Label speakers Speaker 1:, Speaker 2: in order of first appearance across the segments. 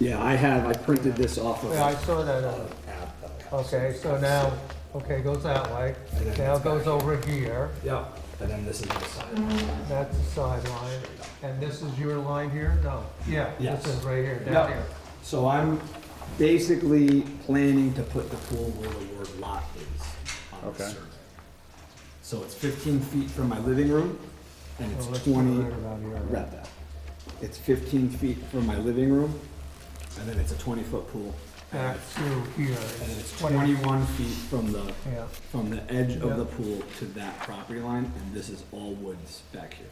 Speaker 1: Yeah, I have, I printed this off of.
Speaker 2: Yeah, I saw that, uh,
Speaker 1: app, uh,
Speaker 2: okay, so now, okay, goes that way, now it goes over here,
Speaker 1: Yeah, and then this is the side.
Speaker 2: that's the sideline, and this is your line here, no, yeah,
Speaker 1: Yes.
Speaker 2: this is right here, down
Speaker 1: Yeah,
Speaker 2: here.
Speaker 1: so I'm basically planning to put the pool where the word lot is on the
Speaker 3: Okay.
Speaker 1: survey. So it's fifteen feet from my living room, and
Speaker 2: Well,
Speaker 1: it's
Speaker 2: Oh, let's put it
Speaker 1: twenty,
Speaker 2: right about here, right?
Speaker 1: read that. It's fifteen feet from my living room, and then it's a twenty-foot pool.
Speaker 2: Back through here.
Speaker 1: And then it's
Speaker 2: Twenty-
Speaker 1: twenty-one feet from the,
Speaker 2: Yeah,
Speaker 1: from the edge
Speaker 2: Yeah.
Speaker 1: of the pool to that property line, and this is all woods back here.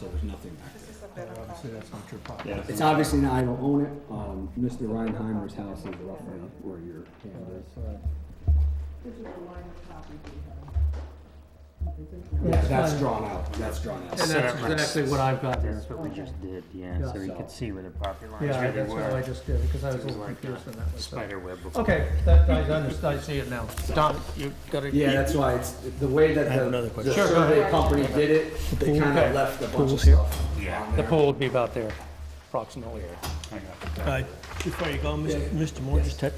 Speaker 1: So there's nothing back there.
Speaker 4: This is a better
Speaker 2: obviously, that's not your property.
Speaker 3: Yeah.
Speaker 1: It's obviously not, I don't own it, um, Mr. Reinheimer's house is roughly where your hand is. Yeah, that's drawn out, that's drawn out.
Speaker 2: And that's exactly what I've got there.
Speaker 5: That's what we just did, yeah,
Speaker 2: Yeah.
Speaker 5: so you could see where the property lines
Speaker 2: Yeah,
Speaker 5: really
Speaker 2: that's what I
Speaker 5: were.
Speaker 2: just did, because I was
Speaker 5: It
Speaker 2: a
Speaker 5: was
Speaker 2: little
Speaker 5: like
Speaker 2: confused on
Speaker 5: a
Speaker 2: that myself.
Speaker 5: spider web before.
Speaker 2: Okay, that, I understand, I see it now. Don, you got it?
Speaker 1: Yeah, that's why it's, the way that the, the survey company did it, they kinda
Speaker 2: Okay.
Speaker 1: left a bunch of stuff.
Speaker 5: Yeah.
Speaker 2: The pool would be about there, approximately.
Speaker 6: Uh, Before you go, Mr. Mr. Moore, just take,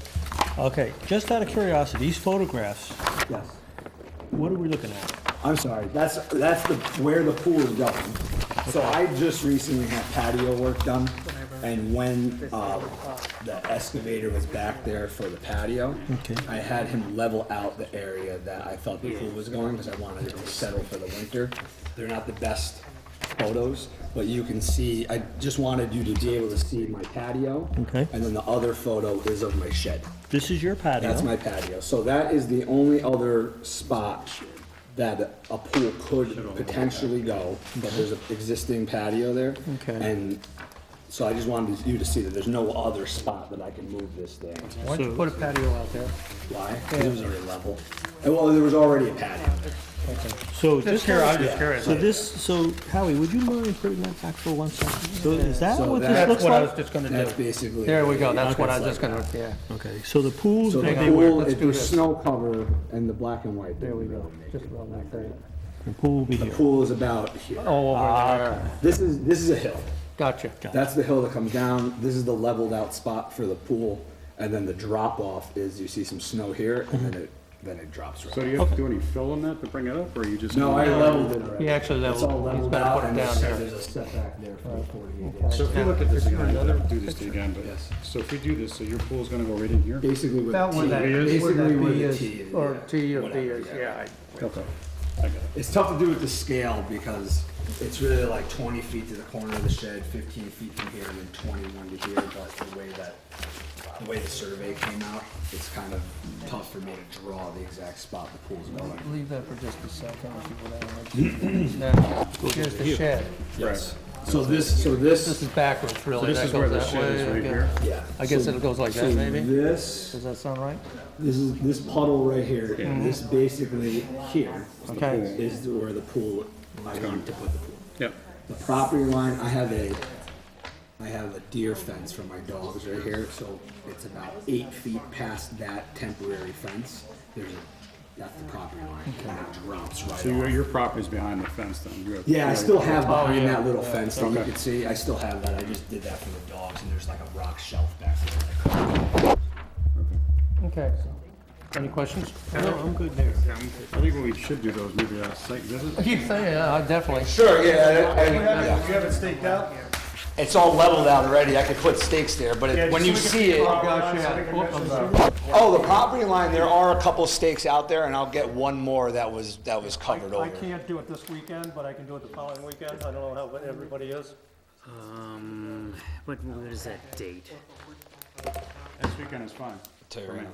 Speaker 6: okay, just out of curiosity, these photographs,
Speaker 1: Yes,
Speaker 6: what are we looking at?
Speaker 1: I'm sorry, that's, that's the, where the pool is going. So I just recently had patio work done, and when, uh, the excavator was back there for the patio,
Speaker 6: Okay.
Speaker 1: I had him level out the area that I thought the pool was going, because I wanted it to settle for the winter. They're not the best photos, but you can see, I just wanted you to be able to see my patio.
Speaker 6: Okay.
Speaker 1: And then the other photo is of my shed.
Speaker 6: This is your patio?
Speaker 1: That's my patio. So that is the only other spot that a pool could potentially go, but there's an existing patio there.
Speaker 6: Okay.
Speaker 1: And so I just wanted you to see that there's no other spot that I can move this thing.
Speaker 2: Why don't you put a patio out there?
Speaker 1: Why? Because it was already level. And well, there was already a patio.
Speaker 6: So this here, I
Speaker 5: just curious.
Speaker 6: So this, so Howie, would you mind putting that back for one second? So is that
Speaker 1: So
Speaker 6: what this
Speaker 1: that's
Speaker 6: looks
Speaker 2: What I was
Speaker 6: like?
Speaker 2: just gonna
Speaker 1: That's
Speaker 2: do.
Speaker 1: basically.
Speaker 2: There we go, that's
Speaker 1: Okay,
Speaker 2: what I
Speaker 1: it's
Speaker 2: was just
Speaker 1: like
Speaker 2: gonna,
Speaker 1: that.
Speaker 2: yeah.
Speaker 6: Okay, so the pool's
Speaker 1: So the
Speaker 6: gonna
Speaker 2: Hang on,
Speaker 6: be,
Speaker 1: pool,
Speaker 2: let's
Speaker 1: if
Speaker 2: do
Speaker 1: there's
Speaker 2: this.
Speaker 1: snow cover and the black and white. There we go.
Speaker 2: Just around that area.
Speaker 6: the pool will be
Speaker 1: The
Speaker 6: here.
Speaker 1: pool is about here.
Speaker 2: Oh, over there,
Speaker 1: This is, this is a hill.
Speaker 2: gotcha.
Speaker 1: That's the hill that comes down. This is the leveled out spot for the pool. And then the drop off is you see some snow here and then it, then it drops
Speaker 3: So
Speaker 1: right.
Speaker 3: do you have to do any fill in that to bring it up, or you just?
Speaker 1: No, I leveled it already.
Speaker 2: He actually
Speaker 1: It's all
Speaker 2: leveled-
Speaker 1: leveled
Speaker 2: he's gotta
Speaker 1: out
Speaker 2: put it
Speaker 1: and there's-
Speaker 2: down here.
Speaker 1: There's a setback there for the forty-eight inch.
Speaker 3: So if you look at this again, I'll never do this to you again, but,
Speaker 1: Yes.
Speaker 3: so if we do this, so your pool's gonna go right in here?
Speaker 1: Basically with
Speaker 2: About where
Speaker 1: the
Speaker 2: that,
Speaker 1: T,
Speaker 2: where
Speaker 1: basically
Speaker 2: that
Speaker 1: where
Speaker 2: B
Speaker 1: the T
Speaker 2: is,
Speaker 1: is.
Speaker 2: or
Speaker 1: yeah,
Speaker 2: T or D
Speaker 1: whatever,
Speaker 2: is, yeah. I-
Speaker 3: Okay, I got it.
Speaker 1: It's tough to do with the scale because it's really like twenty feet to the corner of the shed, fifteen feet from here, and then twenty-one to here, but the way that, the way the survey came out, it's kind of tough for me to draw the exact spot the pool's going.
Speaker 2: Leave that for just a second, if you would. Now, here's the shed.
Speaker 1: Yes. So this, so this,
Speaker 2: This is backwards, really.
Speaker 3: this
Speaker 2: That
Speaker 3: is where
Speaker 2: goes
Speaker 3: the
Speaker 2: that
Speaker 3: shed
Speaker 2: way,
Speaker 3: is, right
Speaker 2: okay.
Speaker 3: here.
Speaker 1: yeah.
Speaker 2: I guess
Speaker 1: So-
Speaker 2: it goes like
Speaker 1: so
Speaker 2: that, maybe?
Speaker 1: This,
Speaker 2: Does that sound right?
Speaker 1: this is, this puddle right here, and this basically here
Speaker 2: Okay.
Speaker 1: is where the pool, I want to put the pool.
Speaker 3: Yep,
Speaker 1: The property line, I have a, I have a deer fence for my dogs right here, so it's about eight feet past that temporary fence. There's, a- that's the property line, kind of drops right
Speaker 3: so your,
Speaker 1: off.
Speaker 3: your property's behind the fence then? you have-
Speaker 1: Yeah, I still have behind
Speaker 2: yeah.
Speaker 1: that little fence that you
Speaker 3: Okay.
Speaker 1: can see, I still have that, I just did that for the dogs, and there's like a rock shelf back there.
Speaker 2: Okay. Any questions?
Speaker 6: No, I'm good there.
Speaker 3: Yeah, I'm- I think what we should do though is maybe a site visit.
Speaker 2: Keep saying, yeah, I definitely.
Speaker 1: Sure, yeah, and,
Speaker 7: You have it staked out?
Speaker 1: it's all leveled out already, I could put stakes there, but
Speaker 7: Yeah,
Speaker 1: it-
Speaker 7: just
Speaker 1: when you
Speaker 7: so we
Speaker 1: see
Speaker 7: can-
Speaker 1: it.
Speaker 7: Oh, gosh, yeah.
Speaker 2: Whoop, I'm sorry.
Speaker 1: Oh, the property line, there are a couple stakes out there, and I'll get one more that was, that was
Speaker 7: I
Speaker 1: covered
Speaker 7: I
Speaker 1: over.
Speaker 7: can't do it this weekend, but I can do it the following weekend. I don't know how everybody is.
Speaker 5: Um, what, what is that date?
Speaker 3: This weekend is fine.
Speaker 1: Tell you right now.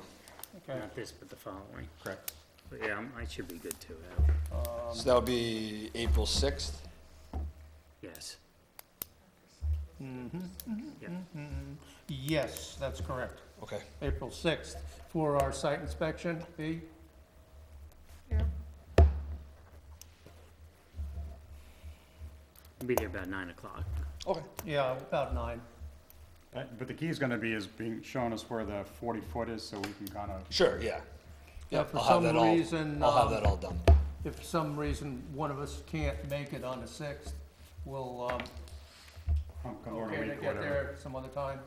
Speaker 5: Not this, but the following.
Speaker 3: Correct.
Speaker 5: But Yeah, I'm- I should be good too,
Speaker 1: So that would be April 6th?
Speaker 5: yes.
Speaker 2: Yes, that's correct.
Speaker 1: Okay.
Speaker 2: April 6th for our site inspection, B?
Speaker 5: I'll Be there about nine o'clock.
Speaker 1: Okay.
Speaker 2: Yeah, about nine.
Speaker 3: But but the key is gonna be is being, showing us where the forty foot is, so we can kind of
Speaker 1: Sure, yeah.
Speaker 2: Yeah,
Speaker 1: Yep,
Speaker 2: for
Speaker 1: I'll have
Speaker 2: some
Speaker 1: that all,
Speaker 2: reason,
Speaker 1: I'll have
Speaker 2: um,
Speaker 1: that all done.
Speaker 2: If for some reason one of us can't make it on the 6th, we'll, um,
Speaker 3: pump a
Speaker 2: okay, to
Speaker 3: week,
Speaker 2: get
Speaker 3: whatever.
Speaker 2: there some other time.